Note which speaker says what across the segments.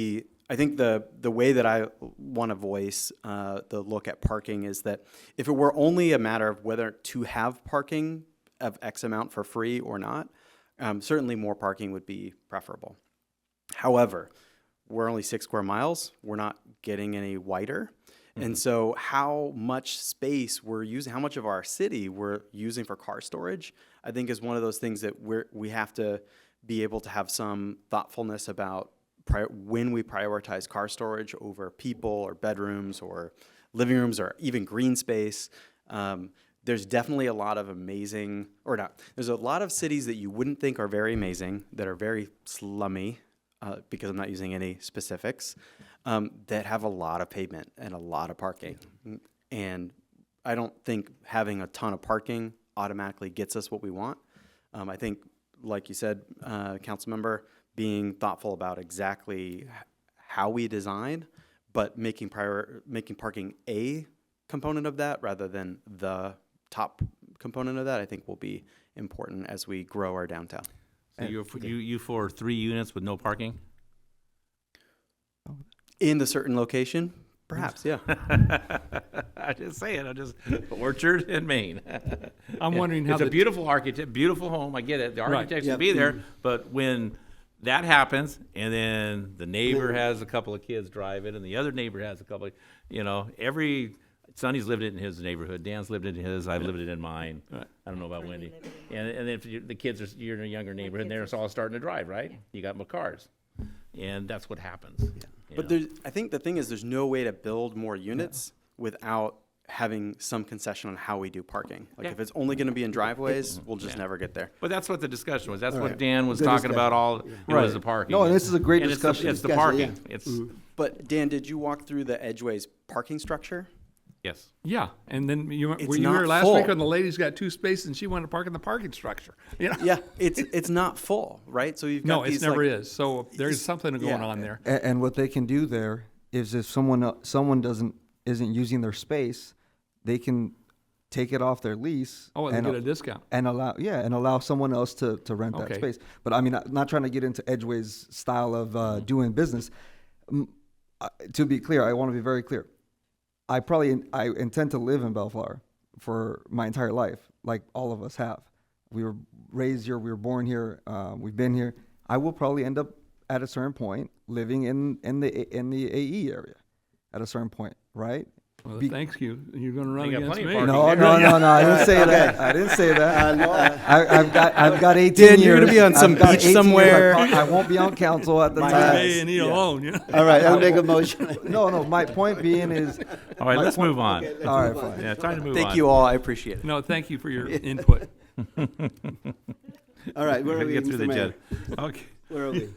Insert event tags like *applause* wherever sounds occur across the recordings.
Speaker 1: The- I think the, the way that I want to voice uh, the look at parking is that if it were only a matter of whether to have parking of X amount for free or not, um, certainly more parking would be preferable. However, we're only six square miles. We're not getting any wider. And so, how much space we're using, how much of our city we're using for car storage, I think is one of those things that we're, we have to be able to have some thoughtfulness about prior, when we prioritize car storage over people or bedrooms or living rooms or even green space. Um, there's definitely a lot of amazing, or not, there's a lot of cities that you wouldn't think are very amazing, that are very slummy, uh, because I'm not using any specifics, um, that have a lot of pavement and a lot of parking. And I don't think having a ton of parking automatically gets us what we want. Um, I think, like you said, uh, council member, being thoughtful about exactly h- how we design, but making prior, making parking a component of that rather than the top component of that, I think will be important as we grow our downtown.
Speaker 2: So you, you, you for three units with no parking?
Speaker 1: In the certain location, perhaps, yeah.
Speaker 2: I just saying, I just, *laughs* Orchard in *laughs* Maine.
Speaker 3: I'm wondering how
Speaker 2: It's a
Speaker 3: the,
Speaker 2: beautiful architect, beautiful home, I get it, the architects will
Speaker 1: Yep.
Speaker 2: be there, but when that happens, and then the neighbor has a couple of kids drive it, and the other neighbor has a couple, of- you know, every, Sonny's lived it in his neighborhood, Dan's lived it in his, I've lived it in mine. I don't know about Wendy. And, and if you, the kids are, you're in a younger neighborhood, and they're all starting to drive, right? You got more cars, and that's what happens. you know?
Speaker 1: But there's, I think the thing is, there's no way to build more units without having some concession on how we do parking. Like if it's only going to be in driveways, we'll just never get there.
Speaker 2: But that's what the discussion was. That's what
Speaker 4: Right.
Speaker 2: Dan was
Speaker 4: The
Speaker 2: talking about all, it was
Speaker 4: Right.
Speaker 2: the parking.
Speaker 4: No, this is a great
Speaker 2: And it's the-
Speaker 4: discussion.
Speaker 2: It's the
Speaker 4: Discussion, yeah. Mm-hmm.
Speaker 2: parking. It's,
Speaker 1: But Dan, did you walk through the Edgeways parking structure?
Speaker 2: yes.
Speaker 3: yeah, and then you
Speaker 1: It's
Speaker 3: were you
Speaker 1: not
Speaker 3: here last
Speaker 1: full.
Speaker 3: week when the lady's got two spaces and she wanted to park in the parking structure. *laughs* You know?
Speaker 1: Yeah, it's it's not full, right? So you've got
Speaker 3: No, it
Speaker 1: these,
Speaker 3: never
Speaker 1: like-
Speaker 3: is. So there's something going
Speaker 1: yeah.
Speaker 3: on there.
Speaker 4: And, and what they can do there is if someone, el- someone doesn't, isn't using their space, they can take it off their lease.
Speaker 3: Oh, and
Speaker 4: and
Speaker 3: get
Speaker 4: al-
Speaker 3: a discount.
Speaker 4: And allow, yeah, and allow someone else to, to rent that
Speaker 3: Okay.
Speaker 4: space. But I mean, I'm not trying to get into Edgeway's style of uh, doing business. Mm, uh, To be clear, I want to be very clear. I probably I intend to live in Bellflower for my entire life, like all of us have. We were raised here, we were born here, uh, we've been here. I will probably end up at a certain point living in in the in the AE area, at a certain point, right?
Speaker 3: Well,
Speaker 4: Be-
Speaker 3: thanks you. You're going to run
Speaker 2: They got
Speaker 3: against
Speaker 2: plenty of
Speaker 3: me.
Speaker 2: parking.
Speaker 4: *laughs* no, no, no, no! I didn't say that. I didn't say that. I, I've got, I've got 18
Speaker 1: Dan,
Speaker 4: years.
Speaker 1: you're gonna be on
Speaker 4: I've
Speaker 1: some
Speaker 4: got
Speaker 1: beach
Speaker 4: 18 years.
Speaker 1: somewhere.
Speaker 4: I, I won't be on council at the time.
Speaker 3: Leave me and he alone. You know?
Speaker 5: All right, I'll make a motion.
Speaker 4: No, no. My point being is,
Speaker 2: All right, let's move on.
Speaker 4: all right, fine.
Speaker 2: Yeah, time to move on.
Speaker 1: Thank you all. I appreciate it.
Speaker 3: No, thank you for your input.
Speaker 5: All right, where are
Speaker 2: Gotta
Speaker 5: we,
Speaker 2: get through
Speaker 5: Mr.
Speaker 2: the
Speaker 5: Mayor?
Speaker 2: agenda. Okay. *laughs*
Speaker 5: Where are we?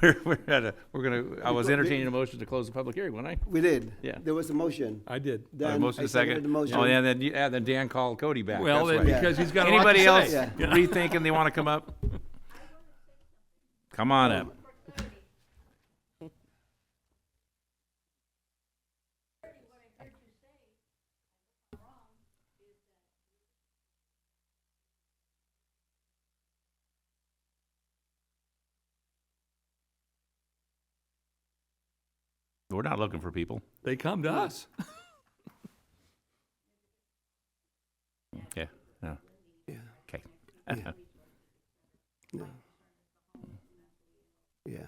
Speaker 2: We're, we're at a, we're gonna, I was entertaining a motion to close the public hearing, wasn't I?
Speaker 5: We did.
Speaker 2: Yeah.
Speaker 5: There was a motion.
Speaker 3: I did.
Speaker 2: All right,
Speaker 5: Then
Speaker 2: motion
Speaker 5: I
Speaker 2: to second.
Speaker 5: seconded the
Speaker 2: Oh, yeah,
Speaker 5: motion.
Speaker 2: then, you- yeah, then Dan called Cody back.
Speaker 3: Well,
Speaker 2: That's
Speaker 3: then,
Speaker 2: right.
Speaker 3: because he's got a lot
Speaker 2: Anybody
Speaker 3: to
Speaker 2: else
Speaker 3: say.
Speaker 2: rethinking they want to come up? Come on up. We're not looking for people.
Speaker 3: They come to us.
Speaker 2: Yeah. No.
Speaker 5: Yeah.
Speaker 2: Okay.
Speaker 5: Yeah. No. Yeah.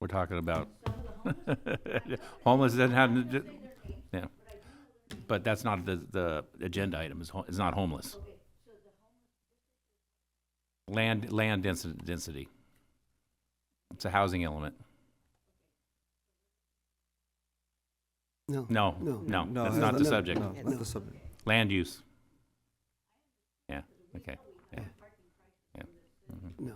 Speaker 2: We're talking about *laughs* homeless doesn't have, to do- yeah. But that's not the, the agenda item, is, ho- is not homeless. Land, land density, density. It's a housing element.
Speaker 5: No.
Speaker 2: No,
Speaker 5: No.
Speaker 2: no,
Speaker 4: No,
Speaker 2: that's not the
Speaker 4: no,
Speaker 2: subject.
Speaker 4: No, not the subject.
Speaker 2: Land use. Yeah, okay, yeah. Yeah. Mhm.
Speaker 5: No.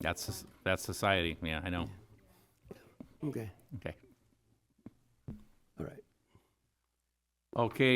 Speaker 2: That's, soc- that's society, yeah, I know,
Speaker 5: Okay.
Speaker 2: okay.
Speaker 5: All right.
Speaker 2: Okay,